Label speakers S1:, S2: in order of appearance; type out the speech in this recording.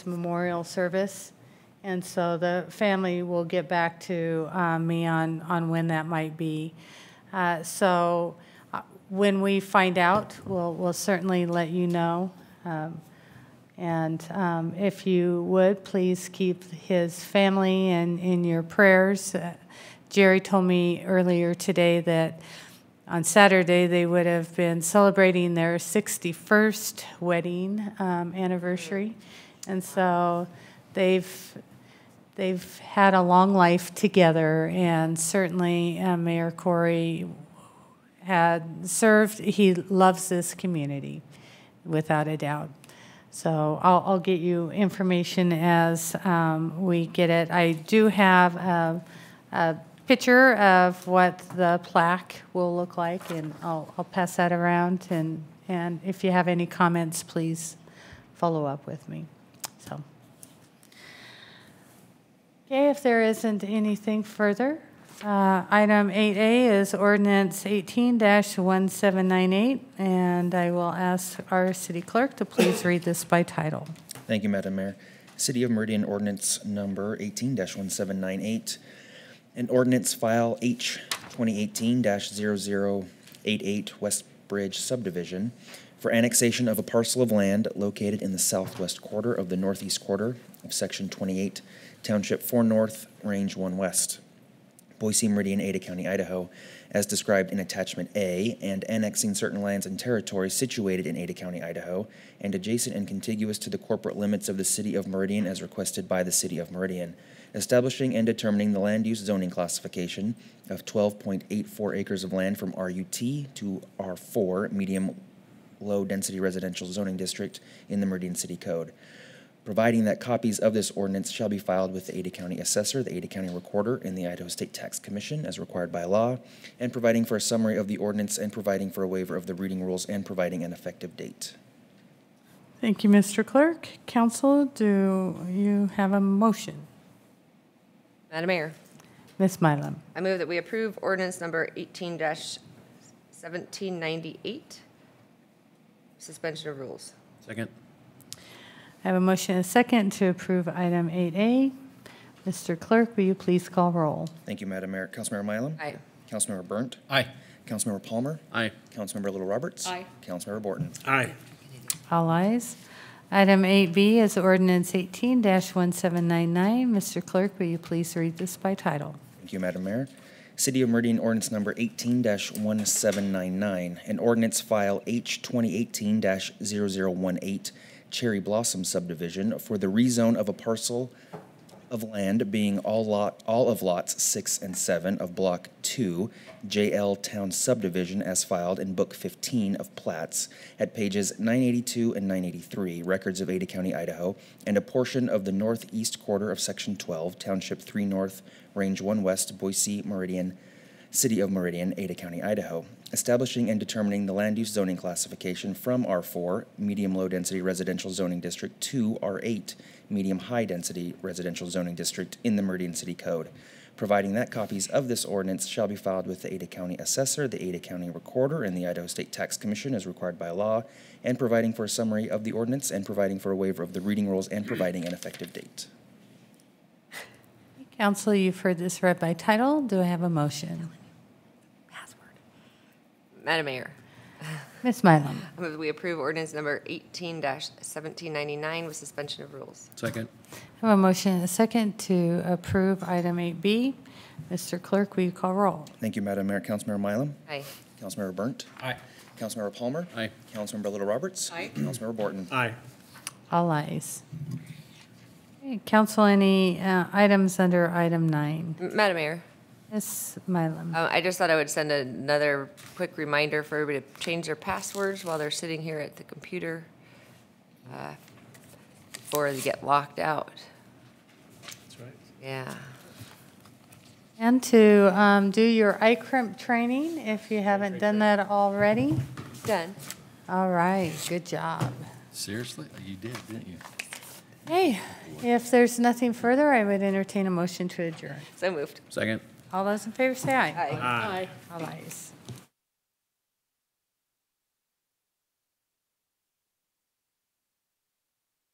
S1: memorial service. And so the family will get back to uh, me on, on when that might be. Uh, So uh, when we find out, we'll, we'll certainly let you know. Um, And um, if you would, please keep his family in, in your prayers. Uh, Jerry told me earlier today that on Saturday, they would have been celebrating their 61st wedding um, anniversary. And so they've, they've had a long life together, and certainly uh, Mayor Corey had served, he loves this community, without a doubt. So I'll, I'll get you information as um, we get it. I do have a, a picture of what the plaque will look like, and I'll, I'll pass that around, and, and if you have any comments, please follow up with me, so. Okay, if there isn't anything further, uh, item 8A is ordinance 18-1798, and I will ask our city clerk to please read this by title.
S2: Thank you, Madam Mayor. City of Meridian Ordinance Number 18-1798, an ordinance file H 2018-0088 West Bridge subdivision for annexation of a parcel of land located in the southwest quarter of the northeast quarter of Section 28, Township 4 North, Range 1 West. Boise Meridian, Ada County, Idaho, as described in Attachment A, and annexing certain lands and territories situated in Ada County, Idaho, and adjacent and contiguous to the corporate limits of the City of Meridian as requested by the City of Meridian, establishing and determining the land use zoning classification of 12.84 acres of land from RUT to R4, medium low-density residential zoning district in the Meridian City Code providing that copies of this ordinance shall be filed with the Ada County Assessor, the Ada County Recorder, and the Idaho State Tax Commission as required by law, and providing for a summary of the ordinance and providing for a waiver of the reading rules and providing an effective date.
S1: Thank you, Mr. Clerk. Council, do you have a motion?
S3: Madam Mayor,
S1: Ms. Mylum?
S3: I move that we approve ordinance number 18-1798, suspension of rules.
S4: Second.
S1: I have a motion and a second to approve item 8A. Mr. Clerk, will you please call roll?
S2: Thank you, Madam Mayor. Councilmember Mylum?
S3: Aye.
S2: Councilmember Burnt?
S4: Aye.
S2: Councilmember Palmer?
S4: Aye.
S2: Councilmember Little Roberts? Aye. Councilmember Borton?
S4: Aye.
S1: All ayes. Item 8B is ordinance 18-1799. Mr. Clerk, will you please read this by title?
S2: Thank you, Madam Mayor. City of Meridian ordinance number eighteen one seven nine nine, an ordinance file H twenty eighteen 18 Cherry Blossom subdivision for the rezone of a parcel of land being all lot, all of lots six and seven of block two, JL Town subdivision as filed in book fifteen of plats at pages nine eighty-two and nine eighty-three, records of Ada County, Idaho, and a portion of the northeast quarter of section twelve, township three north, range one west, Boise, Meridian, City of Meridian, Ada County, Idaho, establishing and determining the land use zoning classification from R4, medium low density residential zoning district, to R8, medium high density residential zoning district in the Meridian City Code, providing that copies of this ordinance shall be filed with the Ada County Assessor, the Ada County Recorder, and the Idaho State Tax Commission as required by law, and providing for a summary of the ordinance and providing for a waiver of the reading rules and providing an effective date.
S1: Council, you've heard this read by title. Do I have a motion?
S3: Madam Mayor,
S1: Ms. Mylum?
S3: I move that we approve ordinance number 18-1799 with suspension of rules.
S4: Second.
S1: I have a motion and a second to approve item 8B. Mr. Clerk, will you call roll?
S2: Thank you, Madam Mayor. Councilmember Mylum?
S3: Aye.
S2: Councilmember Burnt?
S4: Aye.
S2: Councilmember Palmer?
S4: Aye.
S2: Councilmember Little Roberts? Aye. Councilmember Borton?
S4: Aye.
S1: All ayes. Okay, Council, any uh, items under item nine?
S3: M- Madam Mayor,
S1: Ms. Mylum?
S3: uh, I just thought I would send another quick reminder for everybody to change their passwords while they're sitting here at the computer uh, before they get locked out.
S4: That's right.
S3: Yeah.
S1: And to um, do your ICRIMP training, if you haven't done that already.
S3: Done.
S1: All right, good job.
S4: Seriously? You did, didn't you?
S1: Hey, if there's nothing further, I would entertain a motion to adjourn.
S3: So moved.
S4: Second.
S1: All those in favor say aye.
S3: Aye.
S1: All ayes.